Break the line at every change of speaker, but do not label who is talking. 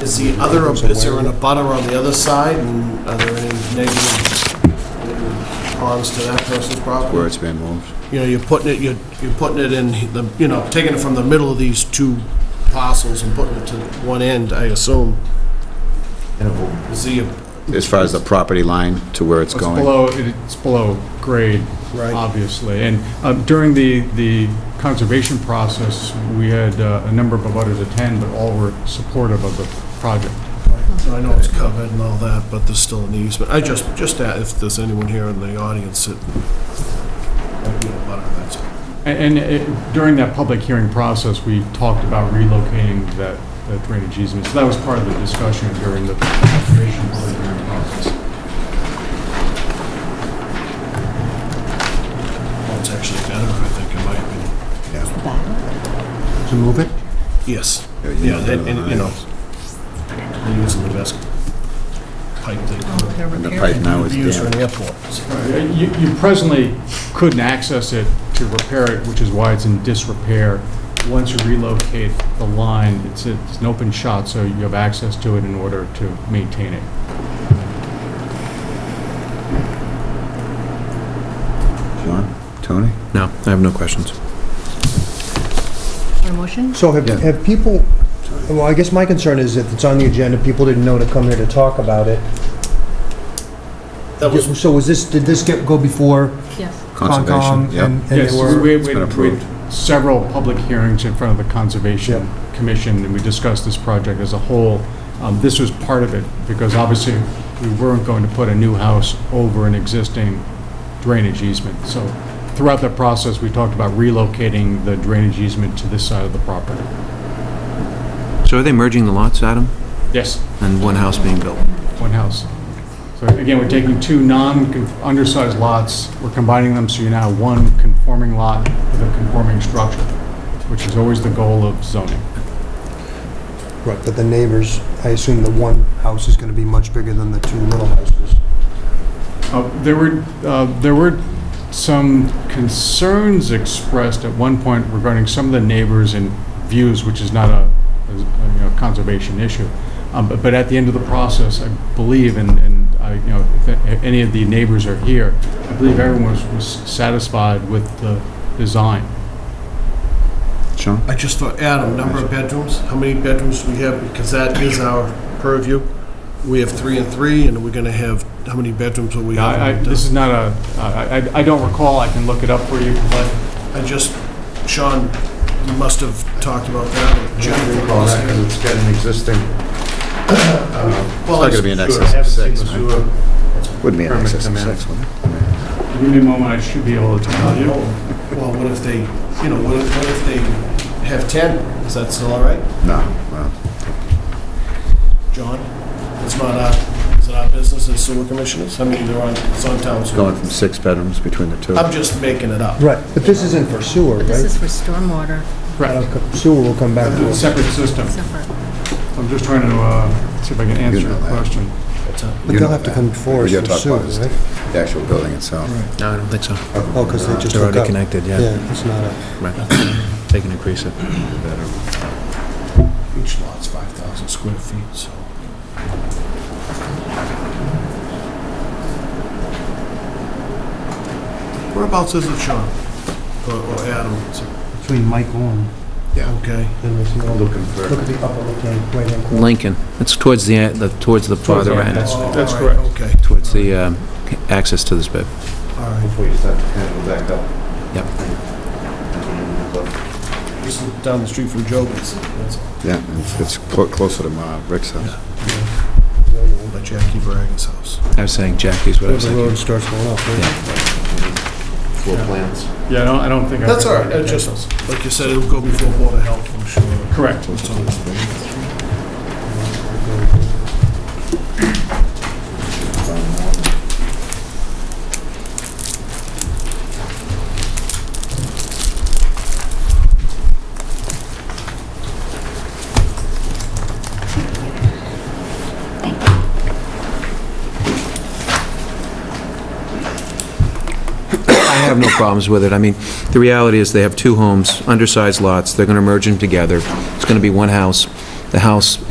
Is the other, is there an abutter on the other side, and are there any negative uh, harms to that person's
where
property?
it's been moved.
You know, you're putting it, you're, you're putting it in the, you know, taking it from the middle of these two parcels and putting it to one end, I assume. Is the,
As far as the property line to where it's
It's
going.
below, it's below grade,
Right.
obviously. And um, during the, the conservation process, we had uh, a number of abutters attend, but all were supportive of the project.
So I know it's covered and all that, but there's still an easement. I just, just a- if there's anyone here in the audience that might be a butter, that's all.
A- And it- during that public hearing process, we talked about relocating that that drainage easement. So that was part of the discussion during the conservation public hearing process.
Well, it's actually better, I think, in my opinion.
To move it?
Yes.
Yeah, you
Yeah,
know
and,
better
and,
than
you
I
know,
do.
they're using the best pipe they
Oh, they're
And the
repairing
pipe
it.
now
could
is
use for an
damaged.
airport.
You you presently couldn't access it to repair it, which is why it's in disrepair. Once you relocate the line, it's a- it's an open shot, so you have access to it in order to maintain it.
John, Tony?
No, I have no questions.
Your motion?
So have,
Yeah.
have people, well, I guess my concern is if it's on the agenda, people didn't know to come here to talk about it.
That was,
So was this, did this get, go before
Yes.
Concom?
Conservation, yeah.
and- And
Yes,
they were,
we-
It's
we-
been
we-
approved.
Several public hearings in front of the Conservation Commission, and we discussed this project as a whole. Um, This was part of it, because obviously, we weren't going to put a new house over an existing drainage easement. So throughout that process, we talked about relocating the drainage easement to this side of the property.
So are they merging the lots, Adam,
Yes,
and one house being built?
one house. So again, we're taking two non-undersized lots, we're combining them, so you're now one conforming lot with a conforming structure, which is always the goal of zoning.
right, but the neighbors, I assume the one house is gonna be much bigger than the two little houses.
Uh, There were, uh, there were some concerns expressed at one point regarding some of the neighbors and views, which is not a, a, you know, conservation issue. Um, But but at the end of the process, I believe, and, and I, you know, if a- any of the neighbors are here, I believe everyone was, was satisfied with the design.
Sean?
I just thought, Adam, number of bedrooms, how many bedrooms do we have? Because that is our purview. We have three and three, and we're gonna have, how many bedrooms will we
Now, I, I-
have?
this is not a, I, I- I don't recall, I can look it up for you, but
I just, Sean, you must have talked about that. Jim,
recall that because it's got an existing.
It's not gonna be an excess of six, right? Wouldn't be an
Permit
excess of
come in.
six, would it?
give me a moment, I should be able to tell you.
Uh, Well, what if they, you know, what if, what if they have 10? Is that still all right?
No, well,
John, it's not our, is it our business as sewer commissioners? I mean, they're on, it's on town
it's going
sewer.
from six bedrooms between the two.
Um,
I'm just making it up.
Right, but this isn't for sewer,
But this
right?
is for stormwater,
Correct.
Uh, Sewer will come back to us.
Separate system.
separate.
I'm just trying to uh, see if I can answer
know
your
that.
question.
It's a-
But
You
they'll
know
have to
that.
come before
We
us
gotta
for
talk
sewer,
about is
right?
The actual building itself.
No, I don't think so.
Oh, because they just
They're
hooked
already
up.
connected, yeah.
Yeah, it's not a,
Right. They can increase it.
Each lot's 5,000 square feet, so. Whereabouts is it, Sean? Or or Adam? It's-
between Michael and,
Okay.
and this, look
Looking for.
at the upper left-hand, right-hand corner.
Lincoln, it's towards the, e- the- towards the farther
the
end,
end. That's-
Oh,
that's
all right,
correct.
Okay,
towards the um, access to this bit.
all right.
Hopefully you just have to kind of go back up.
Yep.
Just down the street from Jobin's. That's all.
Yeah, it's- it's clo- closer to uh, Rick's house.
By Jackie Bragan's house.
I was saying Jackie's what I
Where
was
the
thinking.
road starts going up, right?
Floor plans.
Yeah, I don't, I don't think. I-
That's all right, I just, like you said, it'll go before Board of Health, I'm sure.
Correct.
It's on its way.
I have no problems with it. I mean, the reality is they have two homes, undersized lots. They're going to merge them together. It's going to be one house. The house